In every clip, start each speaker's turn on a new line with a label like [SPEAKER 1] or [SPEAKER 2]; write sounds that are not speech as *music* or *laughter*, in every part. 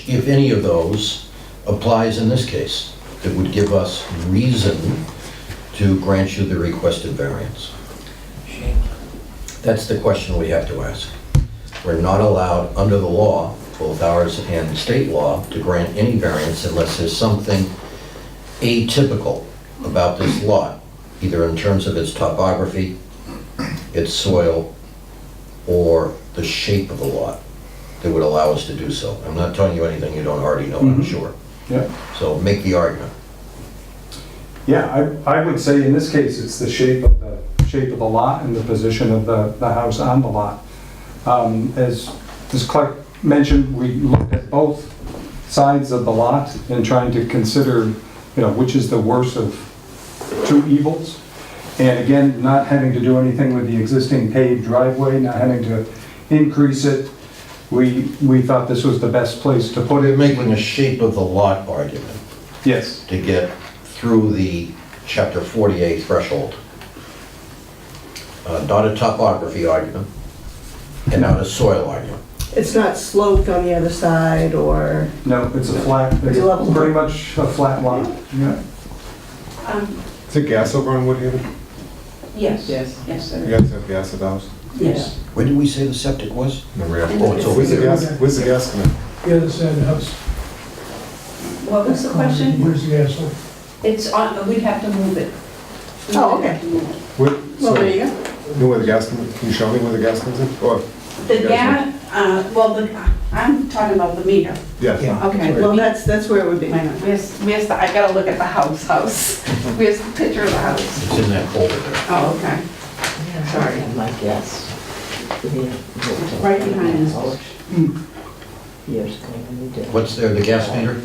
[SPEAKER 1] which, if any of those, applies in this case, that would give us reason to grant you the requested variance? That's the question we have to ask. We're not allowed, under the law, both ours and state law, to grant any variance unless there's something atypical about this lot, either in terms of its topography, its soil, or the shape of the lot that would allow us to do so. I'm not telling you anything you don't already know, I'm
[SPEAKER 2] Mhm.
[SPEAKER 1] sure.
[SPEAKER 2] Yeah,
[SPEAKER 1] So make the argument.
[SPEAKER 2] yeah, I, I would say in this case, it's the shape of the, shape of the lot and the position of the, the house on the lot. Um, As, as Clark mentioned, we looked at both sides of the lot and trying to consider, you know, which is the worst of two evils. And again, not having to do anything with the existing paved driveway, not having to increase it, we, we thought this was the best place to put
[SPEAKER 1] We're
[SPEAKER 2] it.
[SPEAKER 1] making a shape of the lot argument.
[SPEAKER 2] Yes.
[SPEAKER 1] to get through the chapter 48 threshold. Uh, Not a topography argument, and not a soil argument.
[SPEAKER 3] It's not sloped on the other side or,
[SPEAKER 2] No, it's a flat,
[SPEAKER 3] It's level.
[SPEAKER 2] it's pretty much a flat lot, yeah.
[SPEAKER 4] Um,
[SPEAKER 5] Is it gas over on Woodhaven?
[SPEAKER 4] yes. Yes. Yes,
[SPEAKER 5] You
[SPEAKER 4] there is.
[SPEAKER 5] guys have gas at the house?
[SPEAKER 4] Yes.
[SPEAKER 1] Where did we say the septic was?
[SPEAKER 5] No,
[SPEAKER 1] Oh, it's over
[SPEAKER 5] Where's the
[SPEAKER 1] here.
[SPEAKER 5] gas, where's the gas coming?
[SPEAKER 6] The other side of the house.
[SPEAKER 4] What was the question?
[SPEAKER 6] Where's the asshole?
[SPEAKER 4] It's on, we'd have to move it. We
[SPEAKER 3] Oh,
[SPEAKER 4] would have
[SPEAKER 3] okay.
[SPEAKER 4] to move it.
[SPEAKER 5] Where-
[SPEAKER 3] well,
[SPEAKER 5] so,
[SPEAKER 3] there you go.
[SPEAKER 5] you know where the gas, comes- can you show me where the gas comes in? Oh, Or,
[SPEAKER 4] The gas, uh, well, the, I'm talking about the meter.
[SPEAKER 5] yeah.
[SPEAKER 4] Okay.
[SPEAKER 3] Well, that's, that's where it would be.
[SPEAKER 4] Wait a minute, Where's, where's the, I gotta look at the house, house.
[SPEAKER 3] *laughs*
[SPEAKER 4] Where's the picture of the house?
[SPEAKER 1] It's in that folder there.
[SPEAKER 4] Oh, okay. Sorry.
[SPEAKER 7] My guess.
[SPEAKER 4] Right behind us.
[SPEAKER 7] Years ago when we did.
[SPEAKER 1] What's there, the gas meter?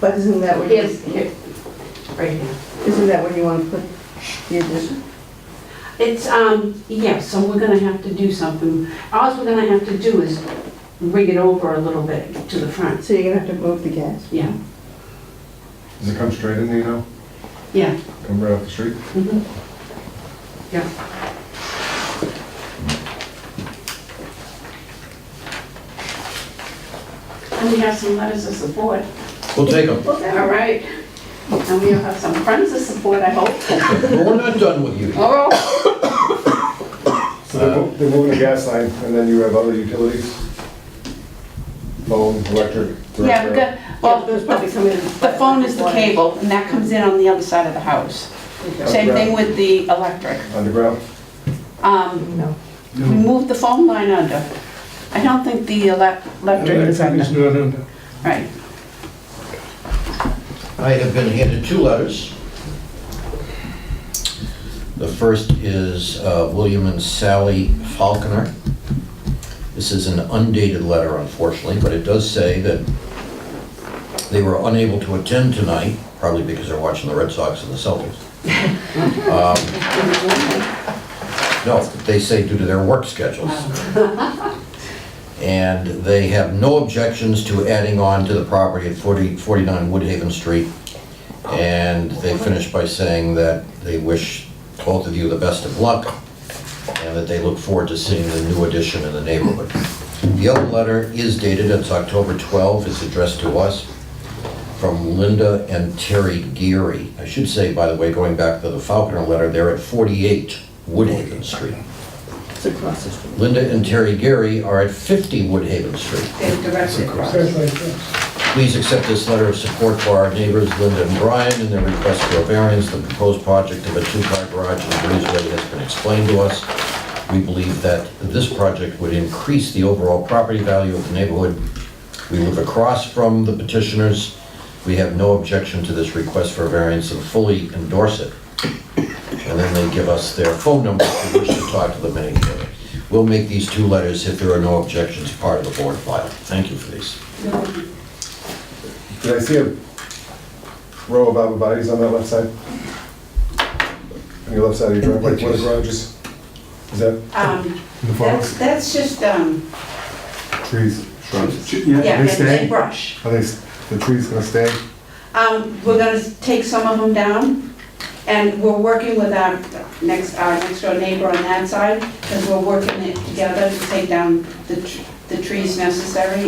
[SPEAKER 3] But isn't that where,
[SPEAKER 4] Here's,
[SPEAKER 3] you-
[SPEAKER 4] here, right here.
[SPEAKER 3] isn't that where you want to put the addition?
[SPEAKER 4] It's, um, yeah, so we're gonna have to do something. All we're gonna have to do is rig it over a little bit to the front.
[SPEAKER 3] So you're gonna have to move the gas.
[SPEAKER 4] Yeah,
[SPEAKER 5] Does it come straight in, you know,
[SPEAKER 4] yeah.
[SPEAKER 5] come right off the street?
[SPEAKER 4] mhm. Yeah. And we have some letters of support.
[SPEAKER 1] We'll take them.
[SPEAKER 4] All right. And we'll have some friends of support, I hope.
[SPEAKER 1] But we're not done with you.
[SPEAKER 4] Oh,
[SPEAKER 5] So they're mo- they're moving a gas line, and then you have other utilities? Phone, electric? direct
[SPEAKER 4] yeah, we
[SPEAKER 5] current.
[SPEAKER 4] got, well,
[SPEAKER 3] Yeah, there's probably some in-
[SPEAKER 4] the phone is the cable, and that comes in on the other side of the house. Same thing with the electric.
[SPEAKER 5] Underground?
[SPEAKER 4] Um,
[SPEAKER 3] No.
[SPEAKER 4] We moved the phone line under. I don't think the elec- electric is
[SPEAKER 6] Everything
[SPEAKER 4] under.
[SPEAKER 6] is not under.
[SPEAKER 4] Right.
[SPEAKER 1] I have been handed two letters. The first is uh, William and Sally Falconer. This is an undated letter, unfortunately, but it does say that they were unable to attend tonight, probably because they're watching the Red Sox and the Celtics. Um, No, they say due to their work schedules. And they have no objections to adding on to the property at 40 49 Woodhaven Street. And they finish by saying that they wish both of you the best of luck and that they look forward to seeing the new addition in the neighborhood. The other letter is dated, it's October 12, it's addressed to us from Linda and Terry Geary. I should say, by the way, going back to the Falconer letter, they're at 48 Woodhaven Street.
[SPEAKER 3] It's across the street.
[SPEAKER 1] Linda and Terry Gary are at 50 Woodhaven Street.
[SPEAKER 4] They directed across.
[SPEAKER 6] That's right, yes.
[SPEAKER 1] Please accept this letter of support for our neighbors Linda and Brian in their request for a variance. The proposed project of a two-car garage and breezeway has been explained to us. We believe that this project would increase the overall property value of the neighborhood. We live across from the petitioners. We have no objection to this request for a variance and fully endorse it. And then they give us their phone number if we wish to talk to them any further. We'll make these two letters, if there are no objections, part of the board file. Thank you for these.
[SPEAKER 5] Did I see a row of auto bodies on that left side? On your left side of your driveway, what are garages? Is that
[SPEAKER 4] Um,
[SPEAKER 5] the
[SPEAKER 4] That's,
[SPEAKER 5] forest?
[SPEAKER 4] that's just, um,
[SPEAKER 5] Trees, shrubs?
[SPEAKER 4] yeah,
[SPEAKER 5] They
[SPEAKER 4] and-
[SPEAKER 5] stay?
[SPEAKER 4] and brush.
[SPEAKER 5] Are they, s- the trees gonna stay?
[SPEAKER 4] Um, We're going to take some of them down, and we're working with our next, our next door neighbor on that side, because we're working it together to take down the tr- the trees necessary